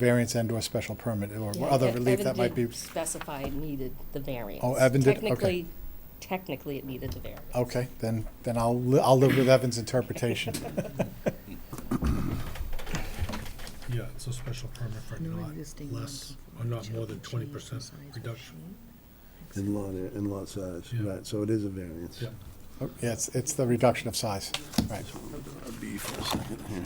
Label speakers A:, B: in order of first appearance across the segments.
A: variance and/or special permit or
B: Yeah,
A: other
B: Ev-
A: relief that
B: Evan
A: might
B: did
A: be.
B: Specify it needed the variance.
A: Oh, Evan did? Okay.
B: Technically, technically it needed the variance.
A: Okay, then, then I'll, li- I'll live with Evan's interpretation.
C: Yeah, it's a special permit for
D: No
C: not
D: existing
C: less, or
D: non-conforming
C: not more than
D: shall
C: twenty
D: be changed in
C: percent
D: size or
C: reduction.
D: shape.
E: In lot, in lot size,
C: Yeah.
E: right, so it is a variance.
C: Yeah,
A: Oh, Yeah, it's, it's the reduction of size, right.
E: A B for a second here.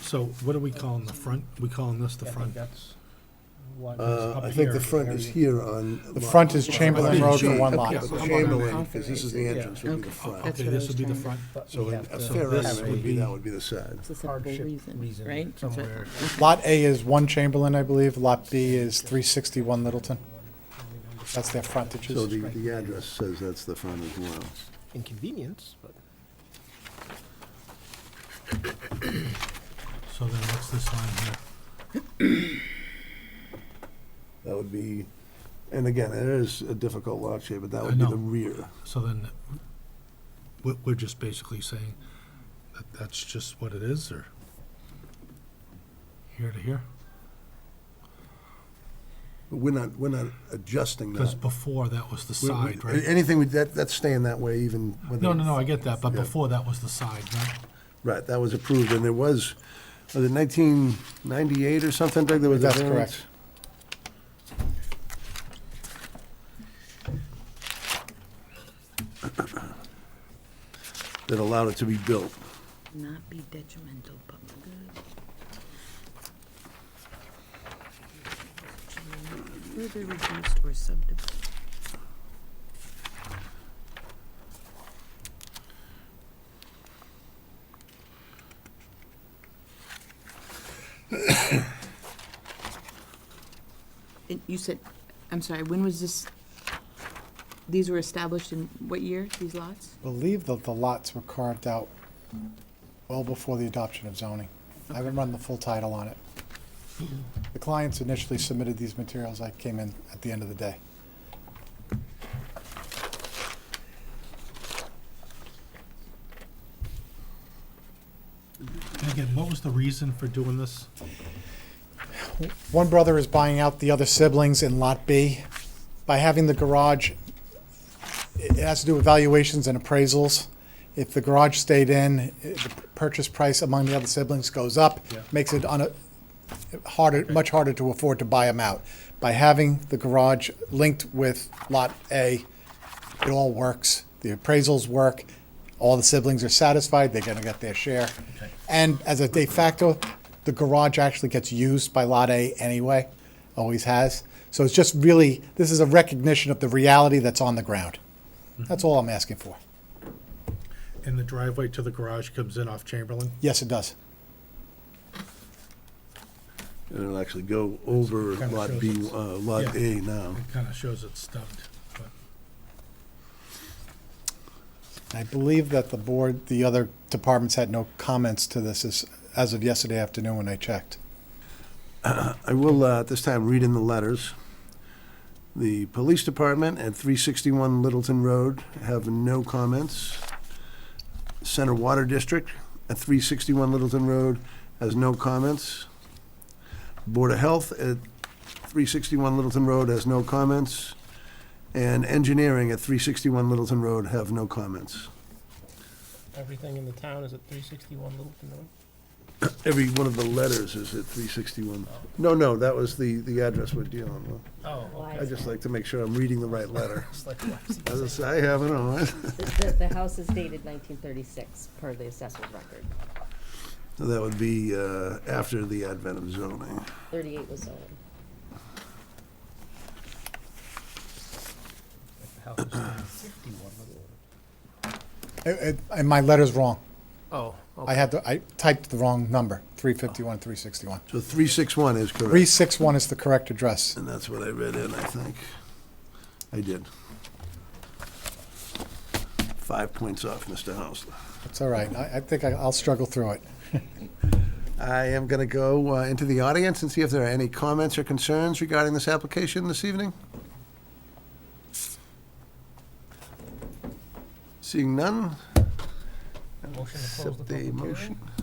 C: so what are we calling the front? We calling this the front?
E: Uh, I think the front is here on.
A: The
E: lot-
A: front is Chamberlain Road for one lot.
C: Yeah.
E: But the Chamberlain, because this is the entrance, would be the front.
D: That's
C: Okay,
D: what I
C: this
D: was
C: would be the
D: trying to-
C: front,
E: So in- a
F: So
E: fair
C: this
E: estimate
C: would
E: would be,
C: be-
E: that would be the side.
D: It's a simple
F: Hardship
D: reason,
F: reason
D: right? That's what-
F: somewhere.
A: Lot A is one Chamberlain, I believe, lot B is three sixty-one Littleton. That's their
E: So
A: frontages.
E: the, the address says that's the front as well.
F: Inconvenience, but.
C: so then what's this line here?
E: That would be, and again, it is a difficult lot shape, but that would be
C: know.
E: the rear.
C: So then, we're, we're just basically saying that that's just what it is, or here to here?
E: But We're not, we're not adjusting
C: Because
E: that.
C: before, that was the
E: We- we-
C: side, right?
E: Anything, we- that, that's staying that way even when.
C: No,
E: they-
C: no, no, I get that, but
E: Yeah.
C: before, that was the side, right?
E: Right, that was approved, and there was, was it nineteen ninety-eight or something, Doug, there was a
A: That's correct.
E: variance? That allowed it to be built.
D: Not be detrimental, but good. Further reduced or subdivided. And you said, I'm sorry, when was this, these were established in what year, these lots?
A: Believe that the lots were carved out well before the adoption of zoning. I haven't run the full title on it. The clients initially submitted these materials, I came in at the end of the day.
C: And again, what was the reason for doing this?
A: One brother is buying out the other siblings in Lot B. By having the garage, it has to do with valuations and appraisals. If the garage stayed in, i- the purchase price among the other siblings goes up,
C: Yeah.
A: makes it on harder, much harder to afford to buy them out. By having the garage linked with Lot A, it all works. The appraisals work. All the siblings are satisfied. They're going to get their share. And as a de facto, the garage actually gets used by Lot A anyway, always has. So it's just really, this is a recognition of the reality that's on the ground.
F: Mm-hmm.
A: That's all I'm asking for.
C: And the driveway to the garage comes in off Chamberlain?
A: Yes, it does.
E: And it'll actually go over
C: Kinda
E: Lot
C: shows
E: B,
C: it's-
E: uh, Lot
C: yeah.
E: A now.
C: It kind of shows it's stubbed, but.
A: I believe that the board, the other departments had no comments to this as, as of yesterday afternoon when I checked.
E: I will, uh, at this time, read in the letters. The Police Department at 361 Littleton Road have no comments. Center Water District at 361 Littleton Road has no comments. Board of Health at 361 Littleton Road has no comments. And Engineering at 361 Littleton Road have no comments.
F: Everything in the town is at three sixty-one Littleton Road?
E: Every one of the letters is at 361. No, no, that was the, the address we're dealing with.
F: Oh,
B: Why
E: I
B: is
E: just
B: that?
E: like to make sure I'm reading the right letter.
F: it's like, why is he-
E: As I say, I haven't on.
B: The, the- the house is dated nineteen thirty-six per the assessor's record.
E: That would be uh, after the advent of zoning.
B: Thirty-eight was zoned.
F: the house is 351 Littleton.
A: I- I- And my letter's wrong.
F: Oh,
A: I
F: okay.
A: had, the- I typed the wrong number, 351, 361.
E: So 361 is correct,
A: 361 is the correct address.
E: and that's what I read in, I think. I did. Five points off, Mr. Hausler.
A: It's all right. I, I think I- I'll struggle through it.
E: I am going to go uh, into the audience and see if there are any comments or concerns regarding this application this evening. Seeing none,
G: Motion to close the
E: Accept
G: public
E: the
G: hearing.
E: motion.